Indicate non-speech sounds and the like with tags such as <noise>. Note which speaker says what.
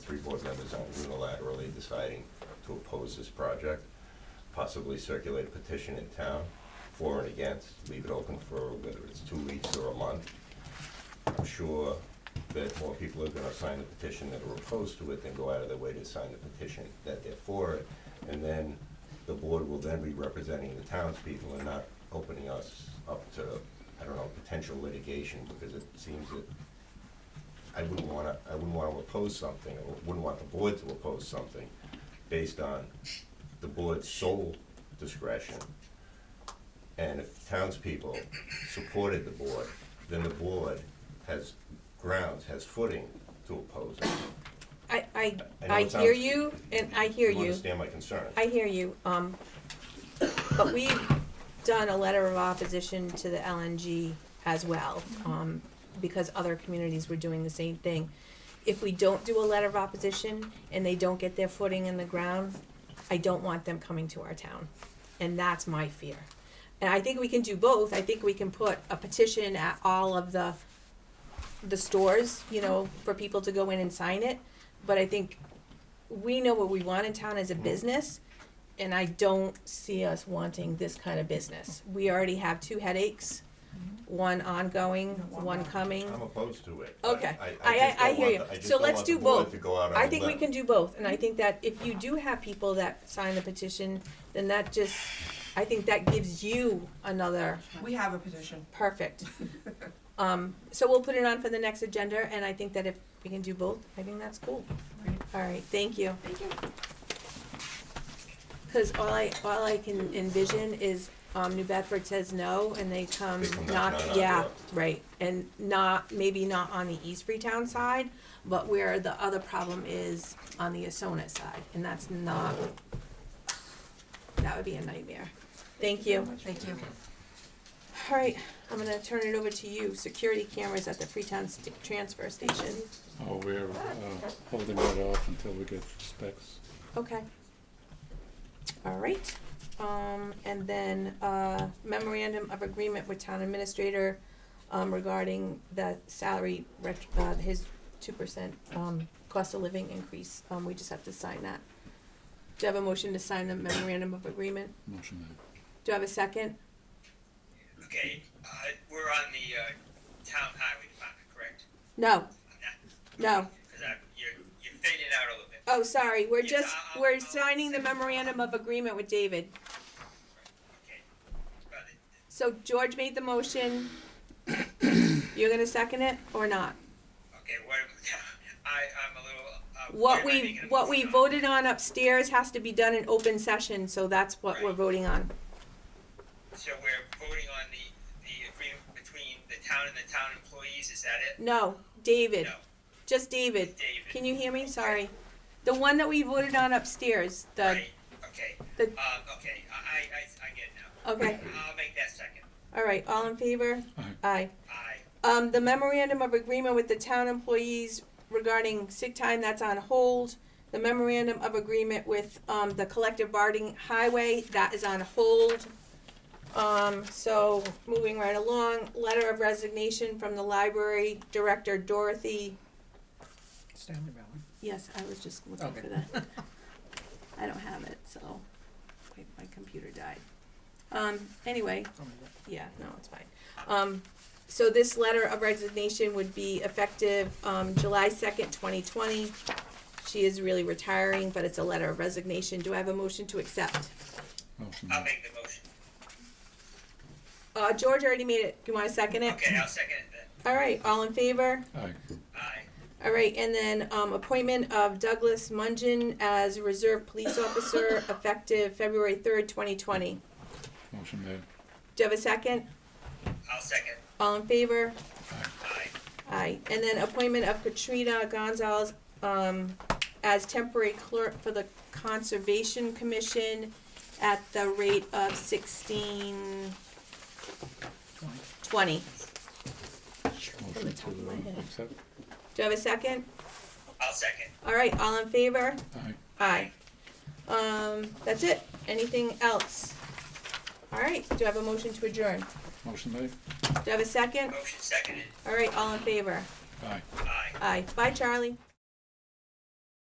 Speaker 1: three board members on unilaterally deciding to oppose this project, possibly circulate a petition in town for and against, leave it open for whether it's two weeks or a month. I'm sure that more people are gonna sign the petition that are opposed to it than go out of their way to sign the petition that they're for it. And then the board will then be representing the townspeople and not opening us up to, I don't know, potential litigation, because it seems that I wouldn't wanna, I wouldn't wanna oppose something, or wouldn't want the board to oppose something based on the board's sole discretion. And if townspeople supported the board, then the board has grounds, has footing to oppose it.
Speaker 2: I, I,
Speaker 1: I know
Speaker 2: I
Speaker 1: it
Speaker 2: hear
Speaker 1: sounds-
Speaker 2: you, and I hear
Speaker 1: You
Speaker 2: you,
Speaker 1: understand my concern?
Speaker 2: I hear you, um, but we've done a letter of opposition to the LNG as well, um, because other communities were doing the same thing. If we don't do a letter of opposition and they don't get their footing in the ground, I don't want them coming to our town, and that's my fear. And I think we can do both, I think we can put a petition at all of the, the stores, you know, for people to go in and sign it, but I think we know what we want in town as a business, and I don't see us wanting this kind of business. We already have two headaches, one ongoing, one coming.
Speaker 1: I'm opposed to it.
Speaker 2: Okay. I-
Speaker 1: just
Speaker 2: I- I
Speaker 1: don't
Speaker 2: hear
Speaker 1: want
Speaker 2: you.
Speaker 1: the- I just
Speaker 2: So
Speaker 1: don't
Speaker 2: let's
Speaker 1: want the
Speaker 2: do
Speaker 1: board
Speaker 2: both.
Speaker 1: to go out on
Speaker 2: I
Speaker 1: a
Speaker 2: think we
Speaker 1: limb.
Speaker 2: can do both, and I think that if you do have people that sign the petition, then that just, I think that gives you another
Speaker 3: We have a petition. <laughs>
Speaker 2: perfect. Um, so we'll put it on for the next agenda, and I think that if we can do both, I think that's cool. All right, thank you.
Speaker 3: Thank you.
Speaker 2: Cause all I, all I can envision is, um, New Bedford says no, and they come
Speaker 1: They come
Speaker 2: not,
Speaker 1: knocking on our
Speaker 2: yeah,
Speaker 1: door.
Speaker 2: right, and not, maybe not on the East Freetown side, but where the other problem is on the Asona side, and that's not, that would be a nightmare. Thank you.
Speaker 3: Thank you.
Speaker 2: All right, I'm gonna turn it over to you, security cameras at the Freetown st- transfer station.
Speaker 4: Oh, we're uh, holding that off until we get specs.
Speaker 2: Okay. All right, um, and then, uh, memorandum of agreement with town administrator, um, regarding the salary ret- uh, his two percent, um, cost of living increase, um, we just have to sign that. Do you have a motion to sign the memorandum of agreement?
Speaker 4: Motion
Speaker 2: Do I have a second?
Speaker 5: Okay, uh, we're on the, uh, town highway department, correct?
Speaker 2: No, no,
Speaker 5: Cause I, you're, you're fading out a little bit.
Speaker 2: oh, sorry, we're
Speaker 5: Yeah,
Speaker 2: just,
Speaker 5: I'll-
Speaker 2: we're
Speaker 5: I'll-
Speaker 2: signing the memorandum of agreement with David.
Speaker 5: Okay. But it-
Speaker 2: So George made the
Speaker 5: <coughs>
Speaker 2: motion, you're gonna second it or not?
Speaker 5: Okay, what, <laughs> I, I'm a little, uh.
Speaker 2: What
Speaker 5: where am I
Speaker 2: we,
Speaker 5: making a
Speaker 2: what we
Speaker 5: mistake?
Speaker 2: voted on upstairs has to be done in open session, so that's what we're
Speaker 5: Right.
Speaker 2: voting on.
Speaker 5: So we're voting on the, the agreement between the town and the town employees, is that it?
Speaker 2: No, David,
Speaker 5: No,
Speaker 2: just David.
Speaker 5: David.
Speaker 2: Can you hear me? Sorry. The one that we voted on upstairs, the,
Speaker 5: Right, okay,
Speaker 2: uh, the,
Speaker 5: um, okay, I, I, I- I get it now.
Speaker 2: okay,
Speaker 5: I'll make that second.
Speaker 2: all right, all in favor?
Speaker 4: Aye.
Speaker 2: Aye.
Speaker 5: I,
Speaker 2: Um, the memorandum of agreement with the town employees regarding sick time, that's on hold. The memorandum of agreement with, um, the collective bargaining highway, that is on hold. Um, so, moving right along, letter of resignation from the library director Dorothy,
Speaker 6: Stanley Valley.
Speaker 2: yes, I was just looking for
Speaker 6: Okay.
Speaker 2: that. I don't have it, so, wait, my computer died. Um, anyway,
Speaker 6: Oh, my God.
Speaker 2: yeah, no, it's fine. Um, so this letter of resignation would be effective, um, July second, twenty twenty. She is really retiring, but it's a letter of resignation. Do I have a motion to accept?
Speaker 4: made. Motion
Speaker 5: I'll
Speaker 4: made.
Speaker 5: make the motion.
Speaker 2: Uh, George already made it. You wanna second it?
Speaker 5: Okay, I'll second it then.
Speaker 2: All right, all in favor?
Speaker 4: Aye.
Speaker 5: Aye.
Speaker 2: All right, and then, um, appointment of Douglas Mungin as reserve police officer effective February third, twenty twenty.
Speaker 4: Motion made.
Speaker 2: Do you have a second?
Speaker 5: I'll second.
Speaker 2: All in favor?
Speaker 5: Aye.
Speaker 2: Aye, and then appointment of Katrina Gonzalez, um, as temporary clerk for the Conservation Commission at the rate of sixteen twenty.
Speaker 4: Motion
Speaker 2: top of my
Speaker 4: to
Speaker 2: head.
Speaker 4: uh, accept.
Speaker 2: Do I have a second?
Speaker 5: I'll second.
Speaker 2: All right, all in favor?
Speaker 4: Aye.
Speaker 2: Aye. Um, that's it. Anything else? All right, do I have a motion to adjourn?
Speaker 4: Motion made.
Speaker 2: Do I have a second?
Speaker 5: Motion seconded.
Speaker 2: All right, all in favor?
Speaker 4: Aye.
Speaker 5: Aye.
Speaker 2: Aye. Bye, Charlie.